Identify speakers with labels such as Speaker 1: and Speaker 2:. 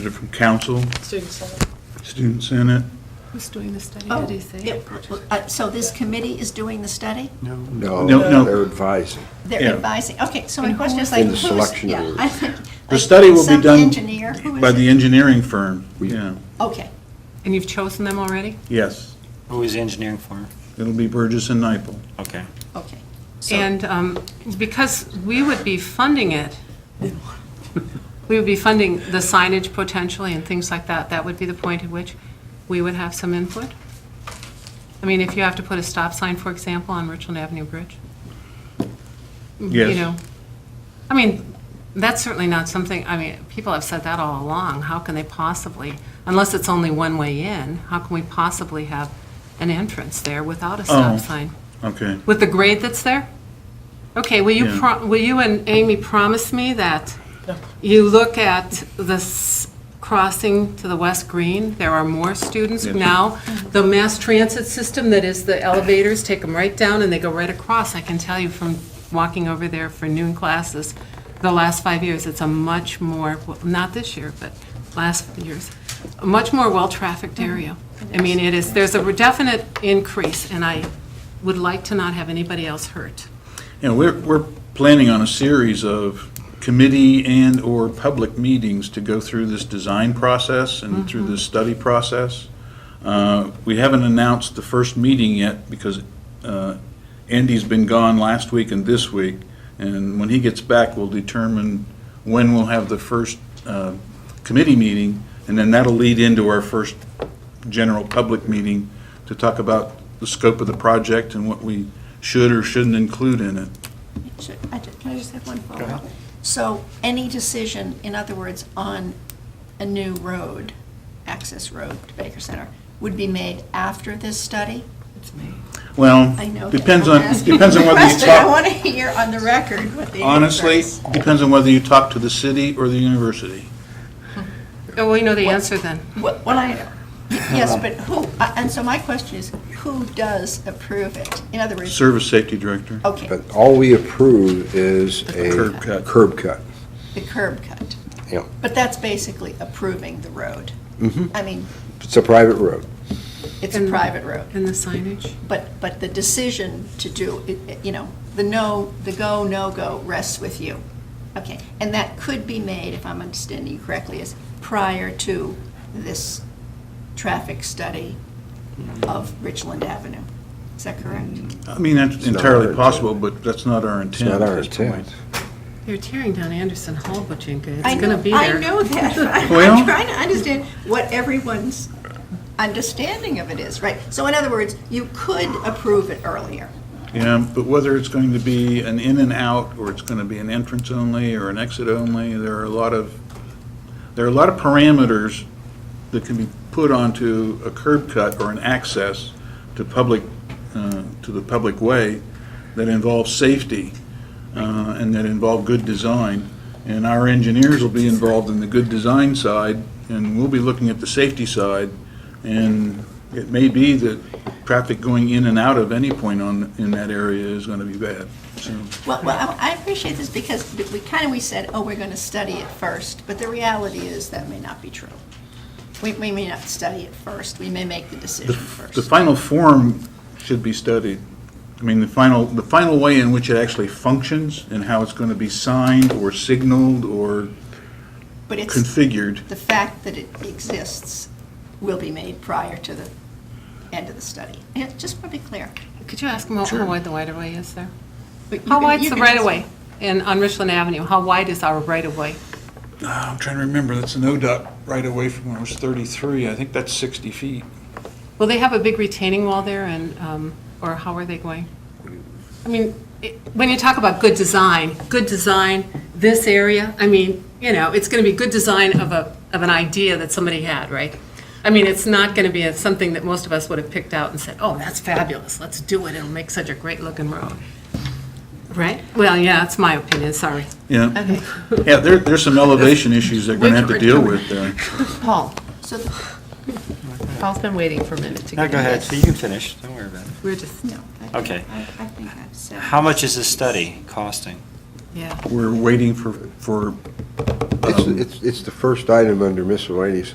Speaker 1: From council,
Speaker 2: Student Senate.
Speaker 1: student senate,
Speaker 3: Who's doing the study,
Speaker 4: Oh,
Speaker 3: did he say?
Speaker 4: it- uh, So this committee is doing the study?
Speaker 5: No,
Speaker 1: No, no.
Speaker 5: they're advising.
Speaker 4: They're
Speaker 1: Yeah.
Speaker 4: advising, okay, so my
Speaker 3: And
Speaker 4: question is
Speaker 3: who
Speaker 4: like,
Speaker 5: is-
Speaker 4: who's...
Speaker 5: In the selection
Speaker 4: yeah,
Speaker 5: of-
Speaker 4: I think-
Speaker 1: The
Speaker 4: like,
Speaker 1: study will be done
Speaker 4: Some engineer, who is
Speaker 1: by the
Speaker 4: it?
Speaker 1: engineering firm.
Speaker 5: We-
Speaker 1: Yeah,
Speaker 4: Okay,
Speaker 3: And you've chosen them already?
Speaker 1: yes,
Speaker 6: Who is engineering for?
Speaker 1: it'll be Burgess and Nyepel.
Speaker 6: Okay.
Speaker 4: okay. So-
Speaker 3: And um, because we would be funding it, we would be funding the signage potentially and things like that, that would be the point at which we would have some input? I mean, if you have to put a stop sign, for example, on Richland Avenue Bridge? You
Speaker 1: Yes.
Speaker 3: Mm-hmm. know, I mean, that's certainly not something, I mean, people have said that all along, how can they possibly, unless it's only one way in, how can we possibly have an entrance there without a
Speaker 1: Oh.
Speaker 3: stop sign?
Speaker 1: Okay,
Speaker 3: With the grade that's there? Okay, will you,
Speaker 1: Yeah.
Speaker 3: pro- will you and Amy promise me that you look at this crossing to the West Green? There are more students
Speaker 1: Yeah.
Speaker 3: now. The mass transit system that is the elevators, take them right down and they go right across. I can tell you from walking over there for noon classes, the last five years, it's a much more, not this year, but last years, a much more well-trafficked area. I mean, it is, there's a definite increase and I would like to not have anybody else hurt.
Speaker 1: you know, we're, we're planning on a series of committee and/or public meetings to go through this design process and through this study process. Uh, We haven't announced the first meeting yet because uh, Andy's been gone last week and this week, and when he gets back, we'll determine when we'll have the first uh, committee meeting, and then that'll lead into our first general public meeting to talk about the scope of the project and what we should or shouldn't include in it.
Speaker 4: Should- I ju- Can I just have one follow-up? So any decision, in other words, on a new road, access road to Baker Center, would be made after this study?
Speaker 1: Well,
Speaker 4: I know. that
Speaker 1: depends
Speaker 4: I'm
Speaker 1: on,
Speaker 4: asking
Speaker 1: depends on
Speaker 4: a
Speaker 1: whether you
Speaker 4: question. I
Speaker 1: talk,
Speaker 4: want to hear on the record what the...
Speaker 1: honestly,
Speaker 4: answer is.
Speaker 1: depends on whether you talk to the city or the university.
Speaker 3: Oh, well, you know the answer then.
Speaker 4: What what I, yes, but who, uh, and so my question is, who does approve it? In other words,
Speaker 1: Service safety director.
Speaker 4: okay,
Speaker 5: But all we approve is
Speaker 4: The
Speaker 5: a.
Speaker 1: curb cut.
Speaker 5: Curb cut.
Speaker 4: the curb cut.
Speaker 5: Yeah. Mm-hmm.
Speaker 4: But that's basically approving the road. I mean,
Speaker 5: It's a private road.
Speaker 4: it's a
Speaker 3: And-
Speaker 4: private road,
Speaker 3: And the signage?
Speaker 4: but, but the decision to do, it- it, you know, the no, the go, no-go rests with you. Okay, and that could be made, if I'm understanding you correctly, is prior to this traffic study of Richland Avenue. Is that correct?
Speaker 1: I mean, that's
Speaker 5: It's not our
Speaker 1: entirely
Speaker 5: intent.
Speaker 1: possible, but that's not our
Speaker 5: It's
Speaker 1: intent
Speaker 5: not
Speaker 1: at
Speaker 5: our
Speaker 1: this point.
Speaker 5: intent.
Speaker 3: They're tearing down Anderson Hall, Bojinka.
Speaker 4: I
Speaker 3: It's
Speaker 4: know,
Speaker 3: going to be
Speaker 4: I
Speaker 3: there.
Speaker 4: know that. I'm-
Speaker 1: Well-
Speaker 4: I'm trying to understand what everyone's understanding of it is, right? So in other words, you could approve it earlier.
Speaker 1: Yeah, but whether it's going to be an in and out, or it's going to be an entrance only, or an exit only, there are a lot of, there are a lot of parameters that can be put onto a curb cut or an access to public, uh, to the public way that involve safety uh, and that involve good design. And our engineers will be involved in the good design side, and we'll be looking at the safety side. And it may be that traffic going in and out of any point on, in that area is going to be bad, so.
Speaker 4: Well, well, I I appreciate this because we kind of, we said, oh, we're going to study it first, but the reality is that may not be true. We, we may not study it first, we may make the decision
Speaker 1: The
Speaker 4: first.
Speaker 1: final form should be studied. I mean, the final, the final way in which it actually functions and how it's going to be signed or signaled or
Speaker 4: But it's,
Speaker 1: configured.
Speaker 4: the fact that it exists will be made prior to the end of the study. Yeah, Just want to be clear.
Speaker 3: Could you ask them how wide the right-of-way is there?
Speaker 4: But you
Speaker 3: How
Speaker 4: can-
Speaker 3: wide's
Speaker 4: you
Speaker 3: the
Speaker 4: can ask-
Speaker 3: right-of-way in, on Richland Avenue? How wide is our right-of-way?
Speaker 1: Ah, I'm trying to remember, that's an ODOT right away from when I was 33. I think that's 60 feet.
Speaker 3: Will they have a big retaining wall there and, um, or how are they going? I mean, it- when you talk about good design, good design, this area, I mean, you know, it's going to be good design of a, of an idea that somebody had, right? I mean, it's not going to be a- something that most of us would have picked out and said, oh, that's fabulous, let's do it, it'll make such a great looking road. Right? Well, yeah, that's my opinion, sorry.
Speaker 1: Yeah, yeah, there, there's some elevation issues they're going to have to deal with there.
Speaker 3: Paul,
Speaker 4: So the
Speaker 3: Paul's been waiting for a minute to
Speaker 6: No,
Speaker 3: get
Speaker 6: go ahead, you can finish, don't worry about it.
Speaker 3: We're just,
Speaker 4: No. I think-
Speaker 6: Okay.
Speaker 4: I I think I've said.
Speaker 6: How much is this study costing?
Speaker 3: yeah.
Speaker 1: We're waiting for, for Um,
Speaker 5: It's, it's, it's the first item under miscellaneous